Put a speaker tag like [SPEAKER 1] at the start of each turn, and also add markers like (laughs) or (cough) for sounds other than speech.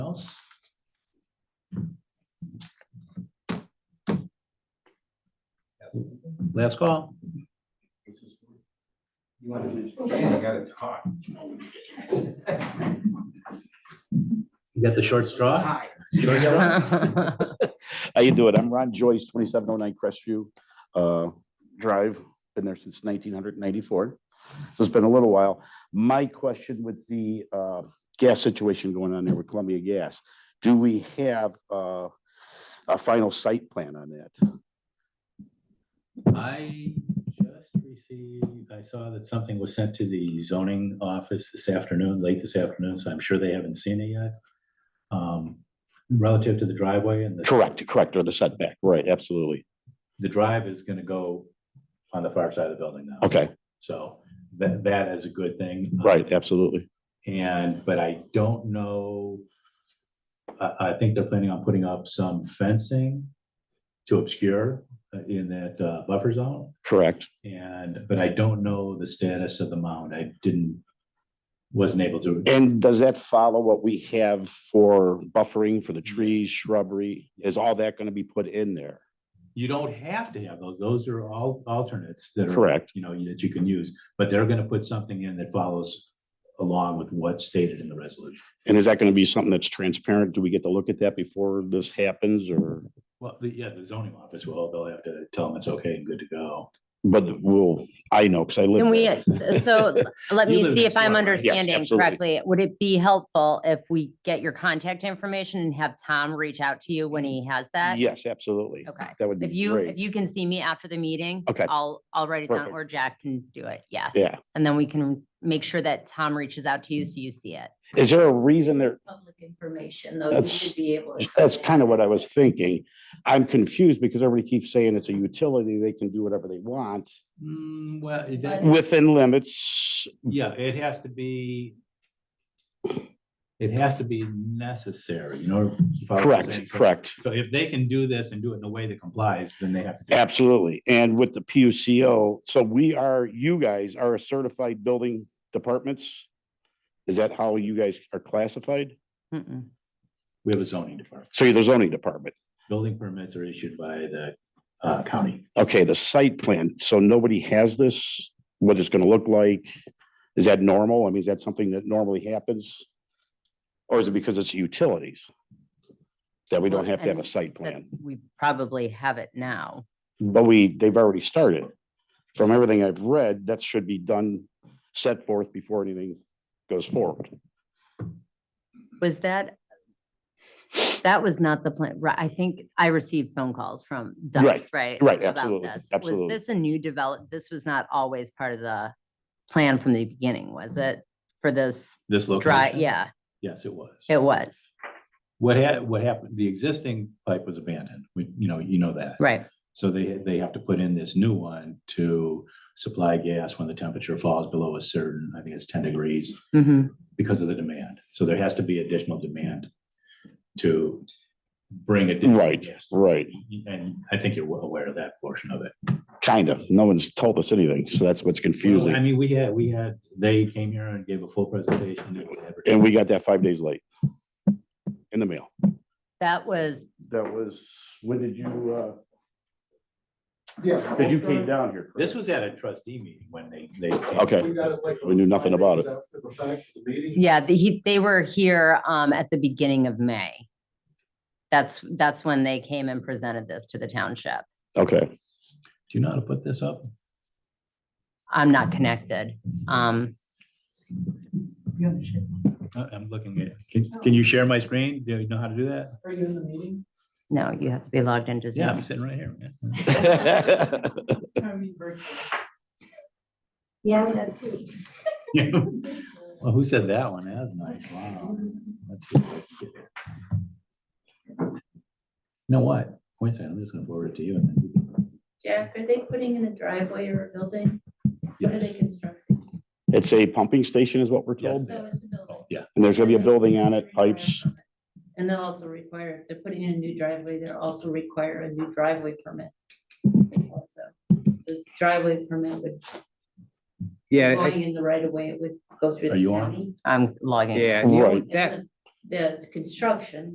[SPEAKER 1] else? Last call.
[SPEAKER 2] You want to just, yeah, you gotta talk.
[SPEAKER 1] You got the short straw? Short straw?
[SPEAKER 3] How
[SPEAKER 4] you doing? I'm Ron Joyce, twenty-seven oh nine Crestview uh, Drive. Been there since nineteen hundred ninety-four. So it's been a little while. My question with the uh, gas situation going on there with Columbia Gas, do we have uh, a final site plan on that?
[SPEAKER 1] I just received, I saw that something was sent to the zoning office this afternoon, late this afternoon, so I'm sure they haven't seen it yet. Um, Relative to the driveway and the.
[SPEAKER 4] Correct, correct, or the setback, right, absolutely.
[SPEAKER 1] The drive is gonna go on the far side of the building now.
[SPEAKER 4] Okay,
[SPEAKER 1] So that, that is a good thing.
[SPEAKER 4] right, absolutely.
[SPEAKER 1] And, but I don't know. I, I think they're planning on putting up some fencing to obscure uh, in that uh, buffer zone.
[SPEAKER 4] Correct,
[SPEAKER 1] And, but I don't know the status of the mound. I didn't, wasn't able to.
[SPEAKER 4] And does that follow what we have for buffering for the trees, shrubbery? Is all that going to be put in there?
[SPEAKER 1] You don't have to have those. Those are all alternates that are.
[SPEAKER 4] Correct.
[SPEAKER 1] You know, that you can use, but they're gonna put something in that follows along with what's stated in the resolution.
[SPEAKER 4] And is that going to be something that's transparent? Do we get to look at that before this happens or,
[SPEAKER 1] Well, the- yeah, the zoning office will, they'll have to tell them it's okay and good to go.
[SPEAKER 4] but we'll, I know, because I live.
[SPEAKER 3] Can we, uh,
[SPEAKER 4] there. (laughs)
[SPEAKER 3] so let
[SPEAKER 1] You
[SPEAKER 3] me
[SPEAKER 1] live
[SPEAKER 3] see
[SPEAKER 1] in
[SPEAKER 3] if I'm
[SPEAKER 1] Florida, right?
[SPEAKER 4] Yes,
[SPEAKER 3] understanding
[SPEAKER 4] absolutely.
[SPEAKER 3] correctly. Would it be helpful if we get your contact information and have Tom reach out to you when he has that?
[SPEAKER 4] Yes, absolutely.
[SPEAKER 3] Okay.
[SPEAKER 4] That would be
[SPEAKER 3] If you, if
[SPEAKER 4] great.
[SPEAKER 3] you can see me after the meeting.
[SPEAKER 4] Okay.
[SPEAKER 3] I'll, I'll write it down
[SPEAKER 4] Perfect.
[SPEAKER 3] or Jack can do it. Yeah.
[SPEAKER 4] Yeah.
[SPEAKER 3] And then we can make sure that Tom reaches out to you so you see it.
[SPEAKER 4] Is there a reason there,
[SPEAKER 5] public information, though, you
[SPEAKER 4] That's-
[SPEAKER 5] should be able. to.
[SPEAKER 4] that's kind of what I was thinking. I'm confused because everybody keeps saying it's a utility. They can do whatever they want
[SPEAKER 1] Mm, well, it-
[SPEAKER 5] But-
[SPEAKER 4] within limits.
[SPEAKER 1] yeah, it has to be. It has to be necessary, you know. if I was saying
[SPEAKER 4] Correct,
[SPEAKER 1] so-
[SPEAKER 4] correct.
[SPEAKER 1] So if they can do this and do it in a way that complies, then they have to. do it.
[SPEAKER 4] Absolutely. And with the PUCO, so we are, you guys are a certified building departments? Is that how you guys are classified?
[SPEAKER 3] Mm-mm.
[SPEAKER 1] We have a zoning department.
[SPEAKER 4] So you're the zoning department.
[SPEAKER 1] Building permits are issued by the uh, county.
[SPEAKER 4] Okay, the site plan, so nobody has this, what it's gonna look like? Is that normal? I mean, is that something that normally happens? Or is it because it's utilities? That we don't
[SPEAKER 3] Well,
[SPEAKER 4] have to have
[SPEAKER 3] and
[SPEAKER 4] a site
[SPEAKER 3] so
[SPEAKER 4] plan,
[SPEAKER 3] We probably have it now.
[SPEAKER 4] but we, they've already started. From everything I've read, that should be done, set forth before anything goes forward.
[SPEAKER 3] Was that, that was not the plan, right? I think I received phone calls from Dutch,
[SPEAKER 4] Right,
[SPEAKER 3] right?
[SPEAKER 4] right,
[SPEAKER 3] about
[SPEAKER 4] absolutely,
[SPEAKER 3] this.
[SPEAKER 4] absolutely.
[SPEAKER 3] Was this a new develop, this was not always part of the plan from the beginning, was
[SPEAKER 4] Mm-hmm.
[SPEAKER 3] it? For this
[SPEAKER 1] This
[SPEAKER 3] dry,
[SPEAKER 1] location.
[SPEAKER 3] yeah,
[SPEAKER 1] Yes, it was.
[SPEAKER 3] it was,
[SPEAKER 1] What had, what happened, the existing pipe was abandoned. We, you know, you know that.
[SPEAKER 3] right.
[SPEAKER 1] So they, they have to put in this new one to supply gas when the temperature falls below a certain, I think it's ten degrees.
[SPEAKER 3] hmm
[SPEAKER 1] because of the demand. So there has to be additional demand to bring it.
[SPEAKER 4] Right, right,
[SPEAKER 1] And I think you're well aware of that portion of it.
[SPEAKER 4] kind of. No one's told us anything, so that's what's
[SPEAKER 1] I
[SPEAKER 4] confusing.
[SPEAKER 1] mean, we had, we had, they came here and gave a full presentation. It was advertised.
[SPEAKER 4] And we got that five days late. In the mail.
[SPEAKER 3] That was,
[SPEAKER 4] That was, when did you, uh?
[SPEAKER 6] Yeah.
[SPEAKER 4] Because you came down here. correct?
[SPEAKER 1] This was at a trustee meeting when they, they.
[SPEAKER 4] Okay.
[SPEAKER 6] We got it like
[SPEAKER 4] We knew nothing about it.
[SPEAKER 6] five days after the fact of the meeting.
[SPEAKER 3] yeah, the- he, they were here, um, at the beginning of May. That's, that's when they came and presented this to the township.
[SPEAKER 1] (laughs)
[SPEAKER 4] Okay,
[SPEAKER 1] Do you know how to put this up?
[SPEAKER 3] I'm
[SPEAKER 4] Mm-hmm.
[SPEAKER 3] not connected. Um,
[SPEAKER 1] I- Uh, I'm looking at, can, can you share my screen? Do you know how to do that?
[SPEAKER 6] Are you in the meeting?
[SPEAKER 3] no, you have to be logged into
[SPEAKER 1] Yeah,
[SPEAKER 3] Zoom.
[SPEAKER 1] I'm sitting right here. man.
[SPEAKER 6] I mean, very-
[SPEAKER 5] Yeah, that too.
[SPEAKER 1] (laughs) Well, who said that one? That was nice. Wow. Let's see. if I can get it. You know what? Wait a second, I'm just gonna forward it to you and then. you can-
[SPEAKER 5] Jack, are they putting in a driveway or a building? What are they
[SPEAKER 1] Yes.
[SPEAKER 5] constructing?
[SPEAKER 4] it's a pumping station is what we're told,
[SPEAKER 5] So it's a building.
[SPEAKER 1] Oh, Yeah,
[SPEAKER 4] and there's gonna be a building on it, pipes.
[SPEAKER 5] And they'll also require, if they're putting in a new driveway, they'll also require a new driveway permit. Also, The driveway permit would,
[SPEAKER 7] Yeah, I-
[SPEAKER 5] going in the right of way, it would go through
[SPEAKER 1] Are
[SPEAKER 5] the
[SPEAKER 1] you on?
[SPEAKER 5] county.
[SPEAKER 3] I'm logging.
[SPEAKER 7] yeah, the only-
[SPEAKER 4] Right.
[SPEAKER 5] It's
[SPEAKER 7] that,
[SPEAKER 5] a- the construction,